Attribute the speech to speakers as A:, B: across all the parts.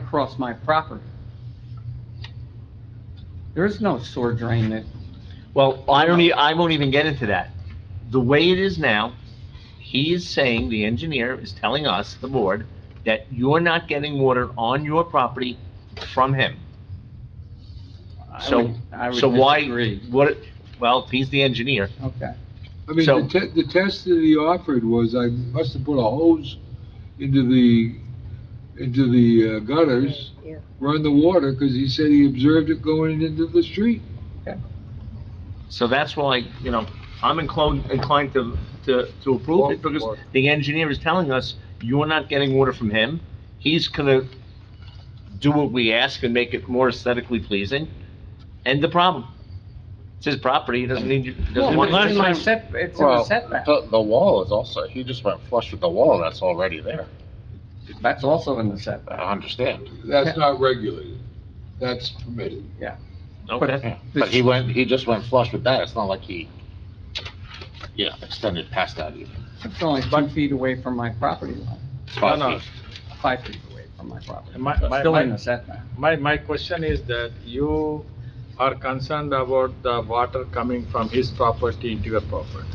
A: across my property. There is no sewer drain that,
B: Well, I don't, e- I won't even get into that. The way it is now, he is saying, the engineer is telling us, the board, that you're not getting water on your property from him.
A: I
B: So,
A: would, I would
B: so why,
A: disagree.
B: what, well, if he's the engineer,
A: Okay.
C: I mean,
B: So-
C: the te- the test that he offered was I must have put a hose into the, into the uh, gutters,
D: Yeah.
C: run the water, because he said he observed it going into the street.
B: so that's why, you know, I'm inclined, inclined to, to, to approve it, because the engineer is telling us, you're not getting water from him. He's gonna do what we ask and make it more aesthetically pleasing, end the problem. It's his property, he doesn't need, you-
A: Well,
B: doesn't want.
A: it's in my
E: time-
A: set- it's in a
E: Well,
A: setback.
E: The, the wall is also, he just went flush with the wall, and that's already there.
A: That's also in the setback.
E: I understand.
C: That's not regulated. That's permitted.
B: Okay.
E: Yeah. But he went, he just went flush with that. It's not like he, yeah, extended past that even.
A: It's only two feet away from my property line,
E: Five
F: No, no.
E: feet.
A: five feet away from my property.
F: My,
A: It's
F: my,
A: Still in the
F: my,
A: setback.
F: my, my question is that you are concerned about the water coming from his property into your property.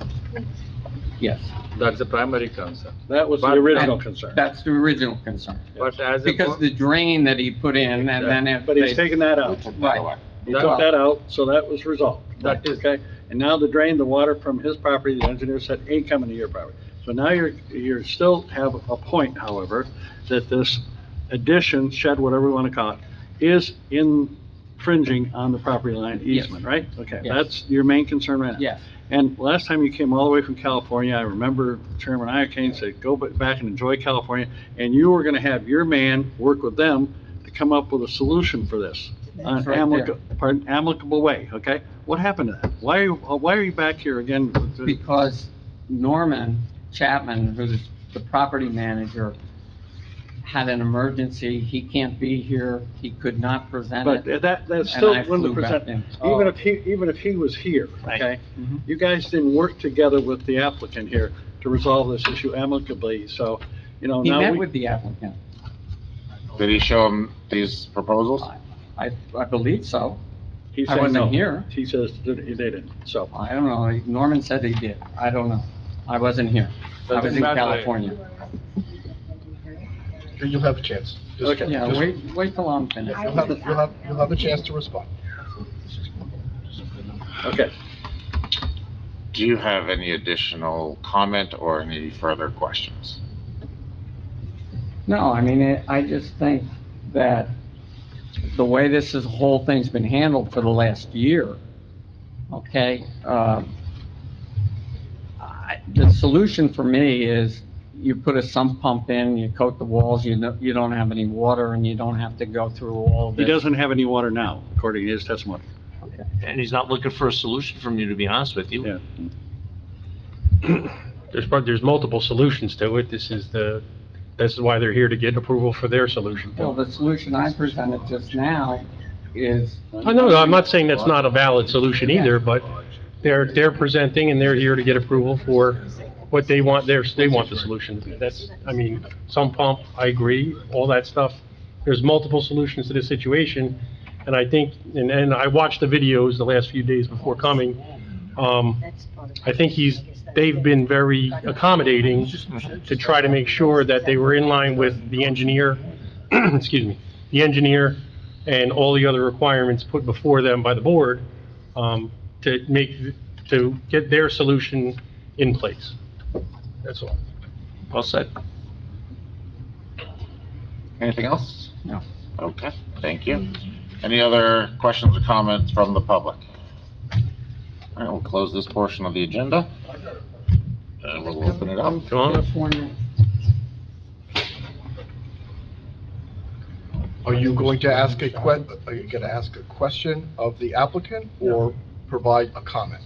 A: Yes,
F: That's the primary concern.
G: That was the
F: But-
G: original concern.
A: that's the original concern.
F: But as a,
A: Because
F: bo-
A: the drain that he put in and then if
G: But he's
A: they,
G: taken that
E: He
G: out.
E: took that
A: Right.
E: away.
G: He
A: Well-
G: took that out, so that was resolved.
F: That is-
G: Okay, and now the drain, the water from his property, the engineer said ain't coming to your property. So now you're, you're still have a point, however, that this addition, shed, whatever you want to call it, is infringing on the property line
A: Yes.
G: easement, right? Okay,
A: Yes.
G: that's your main concern right now.
A: yes,
G: And last time you came all the way from California, I remember Chairman Iacane said, go ba- back and enjoy California, and you were gonna have your man work with them to come up with a solution for this. An
A: That's right there.
G: amicable, pardon, amicable way, okay? What happened to that? Why are you, uh, why are you back here again? with the-
A: because Norman Chapman, who's the property manager, had an emergency. He can't be here. He could not
G: But
A: present it.
G: that,
A: and
G: that's still
A: I
G: one
A: flew back
G: percent,
A: in.
G: even if he, even if he was here,
B: Right.
G: okay?
A: Mhm.
G: You guys didn't work together with the applicant here to resolve this issue amicably, so, you know,
A: He
G: Oh, now we.
A: met with the applicant.
E: Did he show him these proposals?
A: I, I believe so.
G: He
A: I
G: said
A: wasn't
G: no.
A: here.
G: He says that he didn't, so.
A: I don't know. Norman said he did. I don't know. I wasn't here. I was
F: Doesn't
A: in
F: matter.
A: California.
H: You'll have a chance. Just-
G: Okay.
A: Yeah,
H: just-
A: wait, wait till I'm finished.
H: You'll have, you'll have, you'll have a chance to respond.
G: Okay,
E: Do you have any additional comment or any further questions?
A: No, I mean, it- I just think that the way this is, whole thing's been handled for the last year, okay? um, I- The solution for me is you put a sump pump in, you coat the walls, you know, you don't have any water and you don't have to go through all
G: he
A: this.
G: doesn't have any water now, according to his testimony.
B: And he's not looking for a solution from you, to be honest with you.
G: Yeah.
I: There's, prob- there's multiple solutions to it. This is the, this is why they're here to get approval for their solution.
A: Well, the solution I presented just now is,
I: I know, I'm not saying that's not a valid solution either, but they're, they're presenting and they're here to get approval for what they want, their, they want the solution. That's, I mean, some pump, I agree, all that stuff. There's multiple solutions to this situation, and I think, and, and I watched the videos the last few days before coming. Um, I think he's, they've been very accommodating to try to make sure that they were in line with the engineer, excuse me, the engineer and all the other requirements put before them by the board um, to make, to get their solution in place. That's all.
B: Well said.
E: Anything else?
A: No.
E: Okay, thank you. Any other questions or comments from the public? All right, we'll close this portion of the agenda. And we'll open it up.
I: Come on up.
A: California,
H: Are you going to ask a que, are you gonna ask a question of the applicant or provide a comment?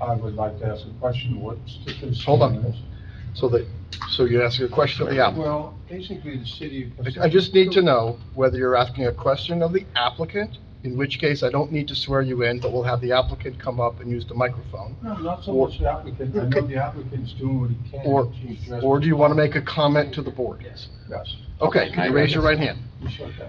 J: I would like to ask a question, what's the concern?
H: Hold on. So that, so you're asking a question of the applicant.
J: Well, basically, the city.
H: I I just need to know whether you're asking a question of the applicant, in which case I don't need to swear you in, but we'll have the applicant come up and use the microphone.
J: No, not so much the applicant, I know the applicant's doing what he can.
H: Or,
J: He's dressed-
H: or do you want to make a comment to the board?
J: Yes.
H: Okay, can you raise your right hand?
J: Yes, okay.